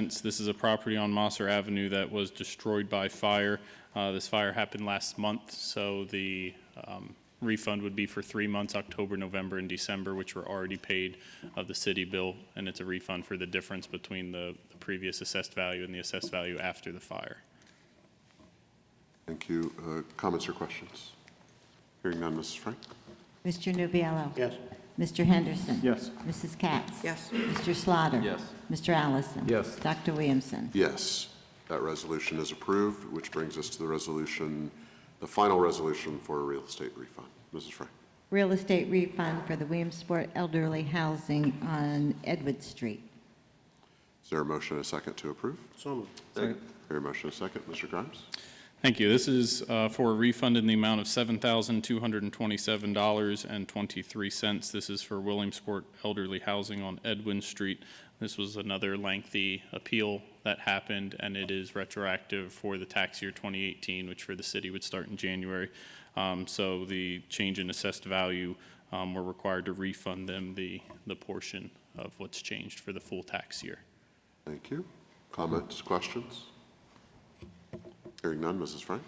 Since This is a property on Mosser Avenue that was destroyed by fire. Uh, This fire happened last month, so the um, refund would be for three months, October, November, and December, which were already paid of the city bill, and it's a refund for the difference between the the previous assessed value and the assessed value after the fire. Thank you. Uh, Comments or questions? Hearing none, Mrs. Frank? Mr. Nubiallo. Yes. Mr. Henderson. Yes. Mrs. Katz. Yes. Mr. Slaughter. Yes. Mr. Allison. Yes. Dr. Williamson. Yes, that resolution is approved, which brings us to the resolution, the final resolution for a real estate refund. Mrs. Frank? Real estate refund for the Williamsport elderly housing on Edward Street. Is there a motion and a second to approve? So moved. Second. Hear a motion and a second. Mr. Grimes? Thank you. This is uh, for a refund in the amount of $7,227.23. This is for Williamsport Elderly Housing on Edwin Street. This was another lengthy appeal that happened, and it is retroactive for the tax year 2018, which for the city would start in January. Um, So the change in assessed value, um, we're required to refund them the, the portion of what's changed for the full tax year. Thank you. Comments, questions? Hearing none, Mrs. Frank?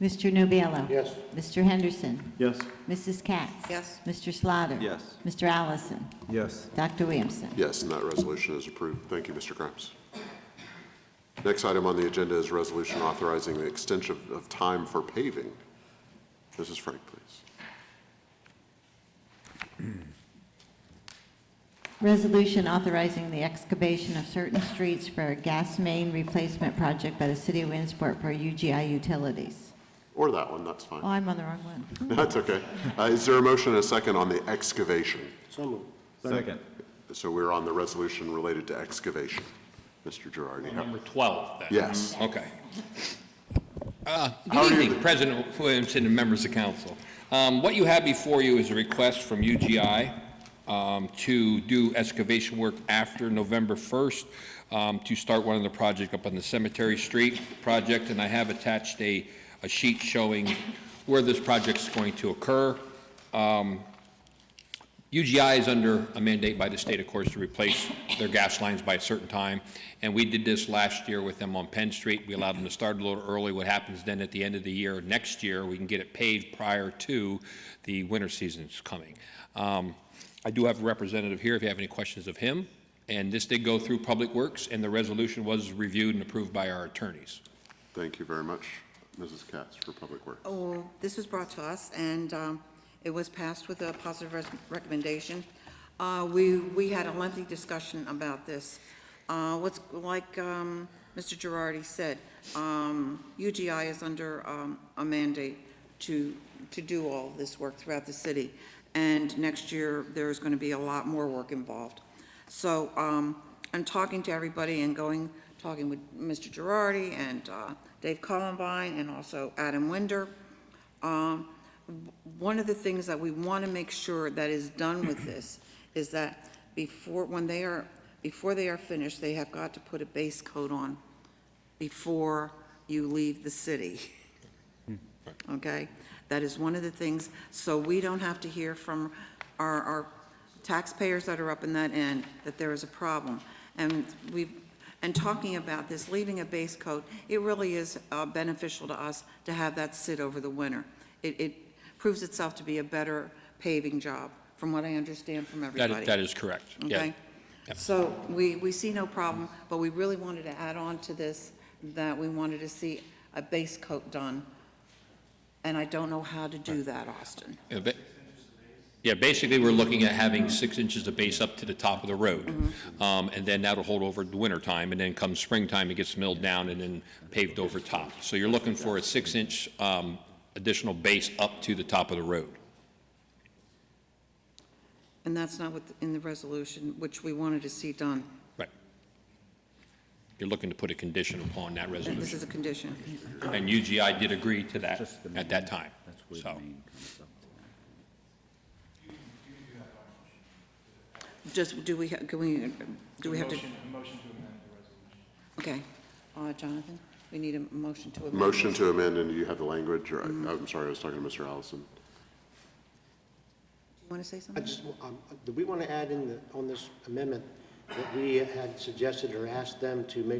Mr. Nubiallo. Yes. Mr. Henderson. Yes. Mrs. Katz. Yes. Mr. Slaughter. Yes. Mr. Allison. Yes. Dr. Williamson. Yes, and that resolution is approved. Thank you, Mr. Grimes. Next item on the agenda is resolution authorizing the extension of time for paving. Mrs. Frank, please. Resolution authorizing the excavation of certain streets for a gas main replacement project by the city of Williamsport for UGI utilities. Or that one, that's fine. Oh, I'm on the wrong one. That's okay. Uh, Is there a motion and a second on the excavation? So moved. Second. So we're on the resolution related to excavation. Mr. Girardi. how- Number 12, then. Yes, Okay. Uh, How are Good you- evening, President Williamson and members of council. Um, What you have before you is a request from UGI um, to do excavation work after November 1st um, to start one of the project up on the Cemetery Street project, and I have attached a a sheet showing where this project's going to occur. UGI is under a mandate by the state, of course, to replace their gas lines by a certain time, and we did this last year with them on Penn Street. We allowed them to start a little early. What happens then at the end of the year, next year, we can get it paved prior to the winter season's coming. Um, I do have a representative here if you have any questions of him, and this did go through Public Works, and the resolution was reviewed and approved by our attorneys. thank you very much, Mrs. Katz, for Public Works. Oh, this was brought to us, and um, it was passed with a positive res- recommendation. Uh, We, we had a lengthy discussion about this. Uh, What's, like um, Mr. Girardi said, um, UGI is under um, a mandate to, to do all this work throughout the city, and next year, there's going to be a lot more work involved. So um, I'm talking to everybody and going, talking with Mr. Girardi and uh, Dave Columbine and also Adam Winder. Um, w- One of the things that we want to make sure that is done with this is that before, when they are, before they are finished, they have got to put a base coat on before you leave the city. Hmm. Okay? That is one of the things, so we don't have to hear from our, our taxpayers that are up in that end that there is a problem. And we've, and talking about this, leaving a base coat, it really is uh, beneficial to us to have that sit over the winter. It, it proves itself to be a better paving job, from what I understand from That everybody is- That is correct. Yeah. okay? So we, we see no problem, but we really wanted to add on to this, that we wanted to see a base coat done, and I don't know how to do that, Austin. Yeah, ba- Yeah, basically, we're looking at having six inches of base up to the top of the road. Mm-hmm. Um, And then that'll hold over the winter time, and then come springtime, it gets milled down and then paved over top. So you're looking for a six-inch um, additional base up to the top of the road. And that's not what, in the resolution, which we wanted to see done. Right. You're looking to put a condition upon that And this is resolution. a condition. And UGI did agree to that at that time. So, Just, do we, ha- can we, do we have to? motion to amend the resolution. Okay. Uh, Jonathan, we need a motion to amend. the Motion to amend, and you have the language, or, I'm sorry, I was talking to Mr. Allison. resolution. You want to say I something? just, um, do we want to add in the, on this amendment, that we had suggested or asked them to make